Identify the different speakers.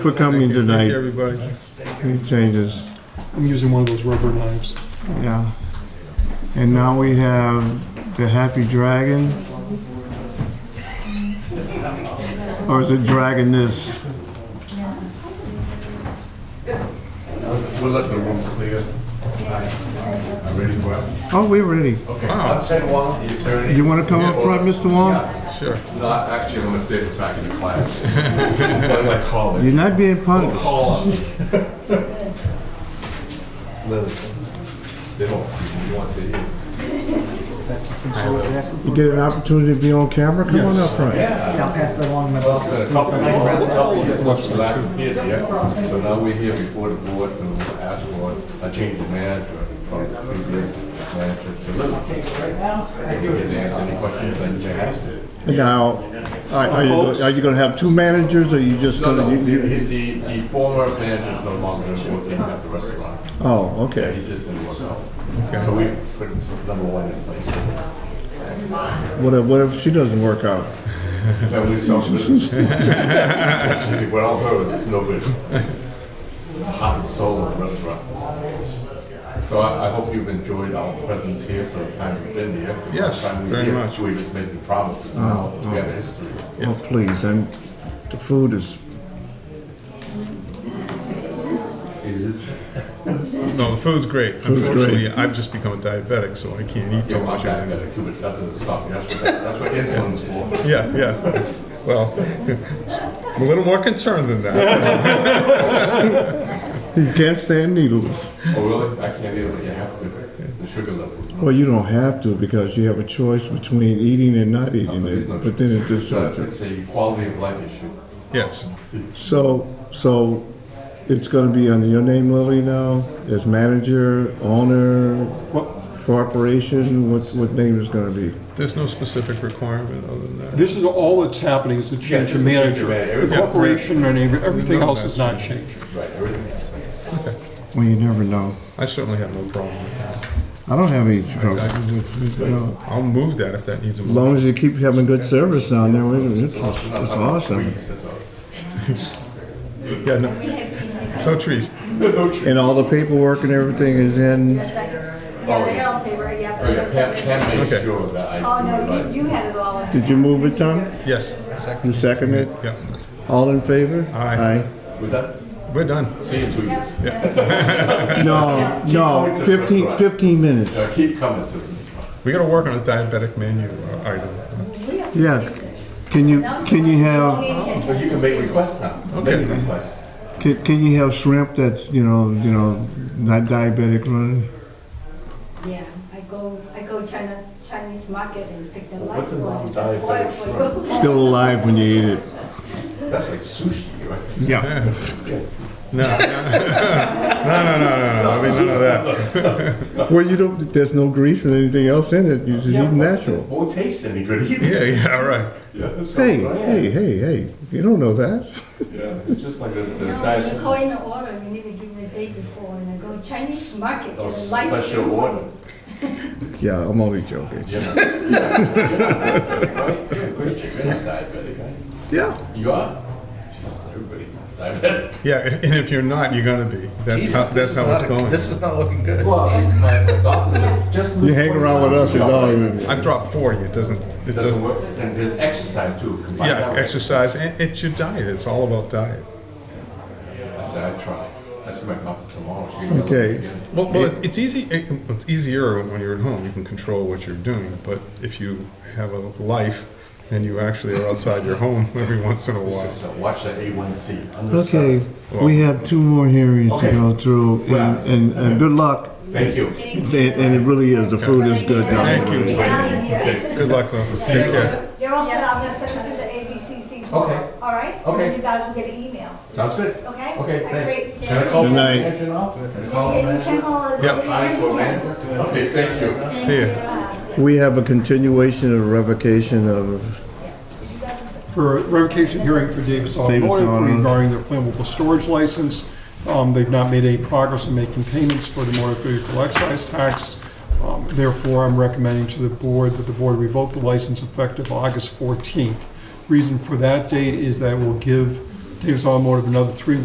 Speaker 1: for coming
Speaker 2: Thank you,
Speaker 1: tonight.
Speaker 2: everybody.
Speaker 1: Any changes?
Speaker 3: I'm using one of those rubber knives.
Speaker 1: Yeah. And now we have the Happy Dragon. Or is it Dragoness?
Speaker 4: We'll let the room clear. I'm ready for it.
Speaker 1: Oh, we're ready.
Speaker 4: Okay, I'll send one, the attorney.
Speaker 1: You want to come up front, Mr. Wong?
Speaker 4: Yeah.
Speaker 2: Sure.
Speaker 4: No, actually, I'm gonna stay back in the class. I'm gonna call
Speaker 1: You're
Speaker 4: it.
Speaker 1: not being punished.
Speaker 4: Call him. They don't see you, you want to see you.
Speaker 5: That's essentially what you're asking
Speaker 1: You
Speaker 5: for.
Speaker 1: get an opportunity to be on camera, come on up front.
Speaker 5: I'll pass that along to my boss.
Speaker 4: Couple of-
Speaker 5: Hi, Brad.
Speaker 4: couple of years since the last meeting, yeah. So now we're here before the board and we'll ask for a change of manager from the previous manager to If you can answer any questions that you have.
Speaker 1: Now, are are you, are you gonna have two managers, or you just
Speaker 4: No, no,
Speaker 1: gonna? you-
Speaker 4: the,
Speaker 1: you-
Speaker 4: the the former manager is no longer working at the restaurant.
Speaker 1: Oh,
Speaker 4: Yeah,
Speaker 1: okay.
Speaker 4: he just didn't work out. So we put number one in place.
Speaker 1: What if, what if she doesn't work out?
Speaker 4: Then we sold it. Well, her is no good. Heart and soul of the restaurant. So I, I hope you've enjoyed our presence here for the time we've been here.
Speaker 2: Yes,
Speaker 4: The time we
Speaker 2: very
Speaker 4: here,
Speaker 2: much.
Speaker 4: We're just making promises now. We have a history.
Speaker 1: Oh, please, and the food is,
Speaker 4: It is.
Speaker 2: No, the food's great.
Speaker 1: great.
Speaker 2: Unfortunately, I've just become a diabetic, so I can't eat
Speaker 4: Yeah,
Speaker 2: too
Speaker 4: my
Speaker 2: much.
Speaker 4: guy got it too, but that doesn't stop me. That's what, that- that's what insulin's for.
Speaker 2: Yeah, yeah. Well, I'm a little more concerned than that.
Speaker 1: you can't stand needles.
Speaker 4: Oh, really? I can't either, but you have to, the sugar level.
Speaker 1: Well, you don't have to, because you have a choice between eating and not eating
Speaker 4: There's
Speaker 1: it,
Speaker 4: no-
Speaker 1: but then it just
Speaker 4: It's a- It's a quality of life issue.
Speaker 2: Yes.
Speaker 1: So, so it's gonna be under your name, Lily, now, as manager, owner, corporation, what, what name is gonna be?
Speaker 2: There's no specific requirement other than that.
Speaker 3: This is all that's happening is the change of
Speaker 4: Yeah, it's a change
Speaker 3: manager.
Speaker 4: of manager.
Speaker 3: The
Speaker 4: Yeah.
Speaker 3: corporation and every- everything
Speaker 2: No,
Speaker 3: else is
Speaker 2: that's-
Speaker 3: not changing.
Speaker 4: Right, everything's the same.
Speaker 1: Well, you never know.
Speaker 2: I certainly have no problem with that.
Speaker 1: I don't have any trouble with, you know,
Speaker 2: I'll move that if that needs a
Speaker 1: as
Speaker 2: move.
Speaker 1: long as you keep having good service down there, it's, it's
Speaker 4: Not-
Speaker 1: it's
Speaker 4: not like
Speaker 1: awesome.
Speaker 4: trees, that's all.
Speaker 2: Yeah, no,
Speaker 4: Oh,
Speaker 2: no trees.
Speaker 1: And all the paperwork and everything is in,
Speaker 6: Yeah, they all pay, right, yeah.
Speaker 4: Oh, yeah,
Speaker 6: but
Speaker 4: Pam,
Speaker 6: that's-
Speaker 4: Pam made
Speaker 2: Okay.
Speaker 4: sure that I
Speaker 6: Oh,
Speaker 4: do it
Speaker 6: no,
Speaker 4: right.
Speaker 6: you, you had it all. in-
Speaker 1: did you move it, Tom?
Speaker 2: Yes.
Speaker 1: You second it?
Speaker 2: Yeah.
Speaker 1: All in favor?
Speaker 2: Aye.
Speaker 4: With that,
Speaker 2: We're done.
Speaker 4: see you in two years.
Speaker 1: Aye. No,
Speaker 4: going
Speaker 1: no,
Speaker 4: to the
Speaker 1: fifteen,
Speaker 4: restaurant.
Speaker 1: fifteen minutes.
Speaker 4: Uh, Keep coming to this.
Speaker 2: We gotta work on a diabetic menu uh, item.
Speaker 1: Yeah, can you, can you have,
Speaker 4: But you can make requests now.
Speaker 2: Okay.
Speaker 4: Make requests.
Speaker 1: can, can you have shrimp that's, you know, you know, not diabetic running?
Speaker 6: Yeah, I go, I go China, Chinese market and pick the
Speaker 4: Well,
Speaker 6: live
Speaker 4: what's in
Speaker 6: one,
Speaker 4: my
Speaker 6: it's spoil
Speaker 4: diet
Speaker 6: for
Speaker 4: that
Speaker 6: you.
Speaker 1: Still alive when you eat it?
Speaker 4: That's like sushi, right?
Speaker 1: Yeah.
Speaker 2: No, no, no, no, no, no, I mean, none of that.
Speaker 1: Well, you don't, there's no grease and anything else in it, you just
Speaker 4: Yeah,
Speaker 1: eat
Speaker 4: but
Speaker 1: natural.
Speaker 4: it Won't taste any good either.
Speaker 2: Yeah, yeah, all right.
Speaker 4: Yeah, so-
Speaker 1: Hey, hey, hey, hey, you don't know that.
Speaker 4: Yeah, it's just like the the
Speaker 6: No,
Speaker 4: diet.
Speaker 6: you call in the order, you need to give me a day before, and I go Chinese market,
Speaker 4: Oh,
Speaker 6: and live.
Speaker 4: Special
Speaker 6: food.
Speaker 4: order.
Speaker 1: Yeah, I'm only joking.
Speaker 4: You're not- you're not diabetic, right? You're a great chicken, you're not diabetic, right?
Speaker 1: Yeah.
Speaker 4: You are? Jesus, everybody is diabetic.
Speaker 2: Yeah, and if you're not, you're gonna be. That's how,
Speaker 7: Jesus, this
Speaker 2: that's
Speaker 7: is
Speaker 2: how it's
Speaker 7: not,
Speaker 2: going.
Speaker 7: this is not looking good.
Speaker 4: Well, my doctor says just.
Speaker 1: You hang around with us, it's all right.
Speaker 2: I've dropped 40, it doesn't, it
Speaker 4: Doesn't
Speaker 2: doesn't,
Speaker 4: work, and there's exercise too. combine that
Speaker 2: yeah,
Speaker 4: with-
Speaker 2: exercise, and it's your diet, it's all about diet.
Speaker 4: I said, I try. I see my doctor tomorrow. She can tell me
Speaker 1: Okay.
Speaker 4: again.
Speaker 2: Well, well, it's- it's easy, it- it's easier when you're at home, you can control what you're doing, but if you have a life and you actually are outside your home every once in a while.
Speaker 4: So watch that A1C.
Speaker 1: Okay,
Speaker 4: understand.
Speaker 1: we have two more hearings to
Speaker 4: Okay.
Speaker 1: go through,
Speaker 4: Well-
Speaker 1: and, and, and good luck.
Speaker 4: Thank you.
Speaker 1: And and it really is, the food is good down there.
Speaker 2: Thank you. Good luck, though. Take care.
Speaker 8: You're all set, I'm gonna send this into ABCC tomorrow,
Speaker 4: Okay.
Speaker 8: all right? And
Speaker 4: Okay.
Speaker 8: then you guys will get an email,
Speaker 4: Sounds good.
Speaker 8: okay?
Speaker 4: Okay,
Speaker 8: All right,
Speaker 4: thanks.
Speaker 8: great.
Speaker 4: Can I call
Speaker 1: Good
Speaker 4: the
Speaker 1: night.
Speaker 4: manager now? Can I call the
Speaker 8: Yeah,
Speaker 6: né?
Speaker 8: you can
Speaker 4: manager?
Speaker 8: call it.
Speaker 2: Yep.
Speaker 4: I call manager? Okay, thank you.
Speaker 2: See ya.
Speaker 1: We have a continuation of revocation of,
Speaker 3: for a revocation hearing for Davis Auto
Speaker 1: Davis
Speaker 3: Oil
Speaker 1: Auto.
Speaker 3: regarding their flammable storage license. Um, They've not made any progress in making payments for the motor vehicle excise tax. Um, Therefore, I'm recommending to the board that the board revoke the license effective August 14th. Reason for that date is that it will give Davis Automotive another three